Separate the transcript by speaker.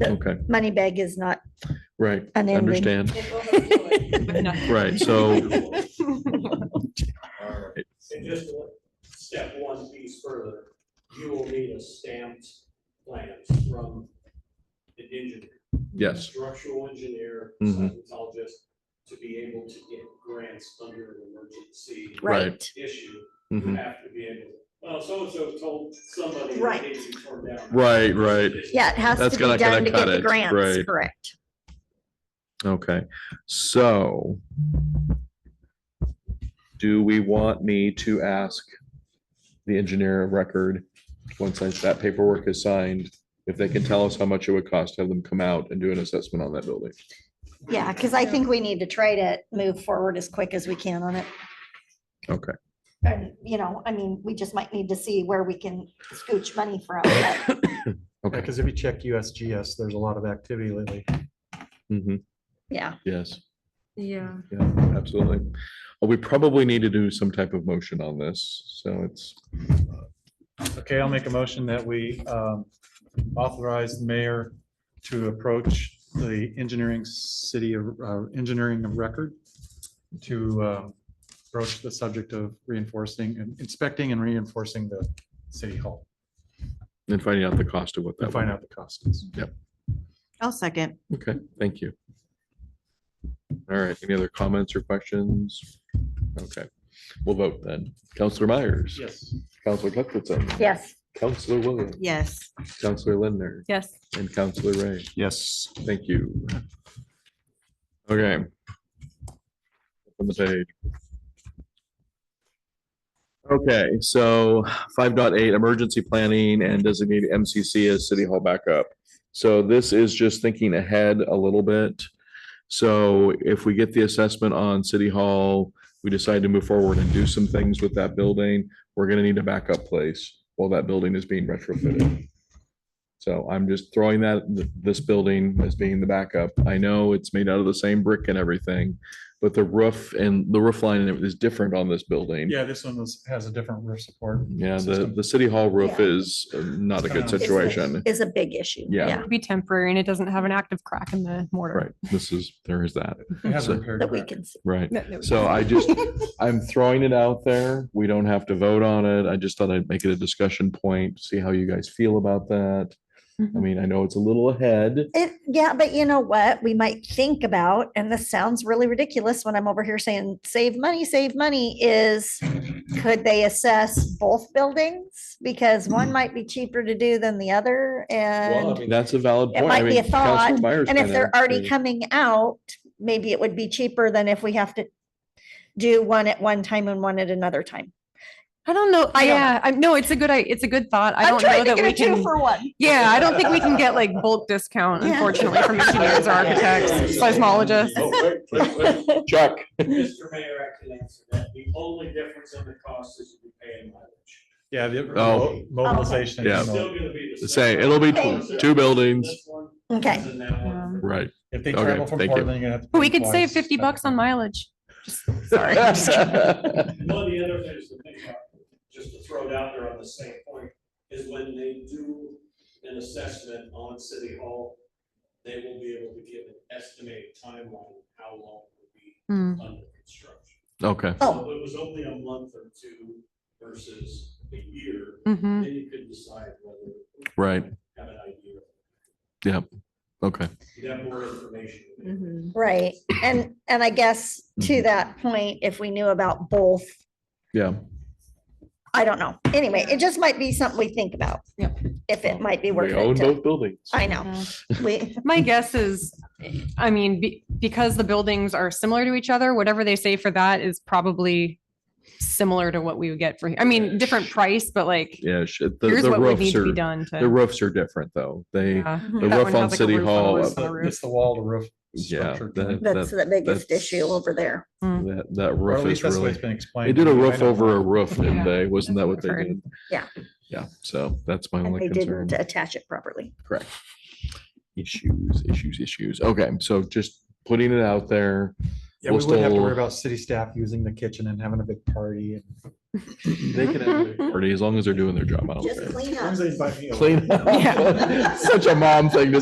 Speaker 1: Okay,
Speaker 2: money bag is not
Speaker 1: right,
Speaker 2: an ending.
Speaker 1: understand,
Speaker 3: Right,
Speaker 1: right, so,
Speaker 4: And just one- step one piece further, you will need a stamped plans from the engineer.
Speaker 1: yes,
Speaker 4: Structural engineer,
Speaker 1: Mhm.
Speaker 4: seismologist, to be able to get grants under an emergency
Speaker 1: Right.
Speaker 2: Right.
Speaker 4: issue. You
Speaker 1: mhm.
Speaker 4: have to be able, well, so-and-so told somebody
Speaker 2: Right.
Speaker 4: it needs to be torn down.
Speaker 1: Right, right.
Speaker 2: Yeah, it has
Speaker 1: That's
Speaker 2: to
Speaker 1: gonna-
Speaker 2: be
Speaker 1: gonna
Speaker 2: done to
Speaker 1: cut
Speaker 2: get the
Speaker 1: it,
Speaker 2: grants,
Speaker 1: right.
Speaker 2: correct.
Speaker 1: okay, so do we want me to ask the engineer of record, once I- that paperwork is signed, if they can tell us how much it would cost, to have them come out and do an assessment on that building?
Speaker 2: Yeah, because I think we need to try to move forward as quick as we can on it.
Speaker 1: Okay.
Speaker 2: And, you know, I mean, we just might need to see where we can scooch money from. but
Speaker 1: Okay.
Speaker 5: because if you check USGS, there's a lot of activity lately.
Speaker 1: Mhm,
Speaker 2: Yeah,
Speaker 1: Yes,
Speaker 3: Yeah.
Speaker 1: yeah, absolutely. We probably need to do some type of motion on this, so it's,
Speaker 5: Okay, I'll make a motion that we um, authorize the mayor to approach the engineering city, of- uh, engineering of record to um, broach the subject of reinforcing and inspecting and reinforcing the city hall
Speaker 1: and finding out the cost of what that.
Speaker 5: and find out the costs.
Speaker 6: I'll second.
Speaker 1: Okay, thank you. All right, any other comments or questions? Okay, we'll vote then. Counselor Myers.
Speaker 5: Yes.
Speaker 1: Counselor Cuthbertson.
Speaker 2: yes.
Speaker 1: Counselor Williams.
Speaker 6: Yes.
Speaker 1: Counselor Lindner.
Speaker 3: Yes.
Speaker 1: And Counselor Ray.
Speaker 5: Yes.
Speaker 1: Thank you. Okay. On the page. Okay, so five point eight emergency planning and designated MCC as city hall backup. So this is just thinking ahead a little bit. So if we get the assessment on city hall, we decide to move forward and do some things with that building, we're gonna need a backup place while that building is being retrofitted. So I'm just throwing that, th- this building as being the backup. I know it's made out of the same brick and everything, but the roof and the roof line and everything is different on this building.
Speaker 5: Yeah, this one was, has a different roof support.
Speaker 1: Yeah, the,
Speaker 5: System.
Speaker 1: the city hall roof
Speaker 2: Yeah.
Speaker 1: is uh, not a good
Speaker 5: It's kind of-
Speaker 1: situation.
Speaker 2: Is a big issue.
Speaker 1: Yeah.
Speaker 3: Be temporary and it doesn't have an active crack in the mortar.
Speaker 1: Right, this is, there is that,
Speaker 5: It has a
Speaker 1: So-
Speaker 5: repair
Speaker 2: That we
Speaker 5: crack.
Speaker 2: can see.
Speaker 1: right.
Speaker 3: No, no,
Speaker 1: So I just, I'm throwing it out there. We don't have to vote on it. I just thought I'd make it a discussion point, see how you guys feel about that. I
Speaker 3: Mhm.
Speaker 1: mean, I know it's a little ahead.
Speaker 2: It, yeah, but you know what? We might think about, and this sounds really ridiculous when I'm over here saying, save money, save money, is could they assess both buildings? Because one might be cheaper to do than the other
Speaker 1: Mm. Well, I
Speaker 2: and,
Speaker 1: mean, that's a valid
Speaker 2: it
Speaker 1: point. I
Speaker 2: might be
Speaker 1: mean,
Speaker 2: a thought,
Speaker 1: Councilor Myers
Speaker 2: and if
Speaker 1: kinda
Speaker 2: they're already
Speaker 1: made-
Speaker 2: coming out, maybe it would be cheaper than if we have to do one at one time and one at another time.
Speaker 3: I don't know.
Speaker 2: I don't know.
Speaker 3: Yeah, I no, it's a good, i- it's a good thought. I
Speaker 2: I'm
Speaker 3: don't know
Speaker 2: trying to
Speaker 3: that
Speaker 2: get
Speaker 3: we
Speaker 2: a two
Speaker 3: can.
Speaker 2: for one.
Speaker 3: Yeah, I don't think we can get like bulk discount
Speaker 2: Yeah.
Speaker 3: unfortunately from engineers or architects, seismologists.
Speaker 4: Oh, wait, wait, wait.
Speaker 1: Chuck.
Speaker 4: Mr. Mayor, I can answer that. The only difference in the cost is you pay in mileage.
Speaker 5: Yeah, the
Speaker 1: Oh.
Speaker 5: mo- mobilization.
Speaker 1: Yeah.
Speaker 4: It's still gonna be the
Speaker 1: Say,
Speaker 4: same.
Speaker 1: it'll be
Speaker 2: Okay.
Speaker 1: tw- two buildings.
Speaker 4: This one
Speaker 2: Okay,
Speaker 4: is in that one.
Speaker 1: Right.
Speaker 5: If they
Speaker 1: Okay,
Speaker 5: travel from
Speaker 1: thank you.
Speaker 5: Portland, you're gonna have to.
Speaker 3: But we
Speaker 5: pay
Speaker 3: could save
Speaker 5: twice.
Speaker 3: fifty bucks on mileage.
Speaker 1: Sorry.
Speaker 4: One of the other things to think about, just to throw it out there on the same point, is when they do an assessment on City Hall, they will be able to give an estimated timeline, of how long it would be
Speaker 3: Mm.
Speaker 4: under construction.
Speaker 1: Okay,
Speaker 2: Oh.
Speaker 4: So If it was only a month or two versus a year,
Speaker 3: Mhm.
Speaker 4: then you could decide whether.
Speaker 1: Mm-hmm. Right.
Speaker 4: Have an idea.
Speaker 1: okay.
Speaker 4: You'd have more information.
Speaker 6: Mm-hmm.
Speaker 2: right. And, and I guess
Speaker 1: Mm-hmm.
Speaker 2: to that point, if we knew about both,
Speaker 1: Yeah,
Speaker 2: I don't know. Anyway, it just might be something we think about.
Speaker 3: Yep.
Speaker 2: If it might be worth
Speaker 1: we own
Speaker 2: it. to-
Speaker 1: both buildings.
Speaker 2: I know. We,
Speaker 3: My guess is, I mean, be- because the buildings are similar to each other, whatever they say for that is probably similar to what we would get for, I mean, different price, but like,
Speaker 1: Yeah, shit, the,
Speaker 3: here's
Speaker 1: the
Speaker 3: what would
Speaker 1: roofs
Speaker 3: need to be
Speaker 1: are,
Speaker 3: done to.
Speaker 1: the roofs are different though. They,
Speaker 3: Yeah.
Speaker 1: the
Speaker 3: That
Speaker 1: roof
Speaker 3: one
Speaker 1: on
Speaker 3: has, like, a
Speaker 1: City
Speaker 3: roof on
Speaker 1: Hall,
Speaker 3: the
Speaker 1: uh,
Speaker 3: roof on the
Speaker 5: The-
Speaker 3: roof.
Speaker 5: It's the wall to roof.
Speaker 1: yeah,
Speaker 5: structure.
Speaker 1: that,
Speaker 2: that's
Speaker 1: that,
Speaker 2: the biggest
Speaker 1: that's-
Speaker 2: issue over there.
Speaker 1: that, that
Speaker 5: Or at
Speaker 1: roof
Speaker 5: least
Speaker 1: is
Speaker 5: that's the way it's
Speaker 1: really,
Speaker 5: been explained.
Speaker 1: they did
Speaker 5: to
Speaker 1: a
Speaker 5: me. I
Speaker 1: roof
Speaker 5: don't-
Speaker 1: over a roof, didn't
Speaker 3: Yeah,
Speaker 1: they? Wasn't that what they
Speaker 3: I've heard.
Speaker 1: did?
Speaker 2: Yeah.
Speaker 1: Yeah, so that's my
Speaker 2: And they
Speaker 1: only concern.
Speaker 2: didn't attach it properly.
Speaker 1: Issues, issues, issues. Okay, so just putting it out there.
Speaker 5: Yeah, we
Speaker 1: We'll
Speaker 5: wouldn't have to
Speaker 1: still-
Speaker 5: worry about city staff using the kitchen and having a big party. and-
Speaker 1: They can, have their party as long as they're doing their job. I don't care.
Speaker 2: Mm-hmm. clean
Speaker 5: As long as they invite me over.
Speaker 1: Clean. up.
Speaker 3: Yeah.
Speaker 1: Such a mom thing to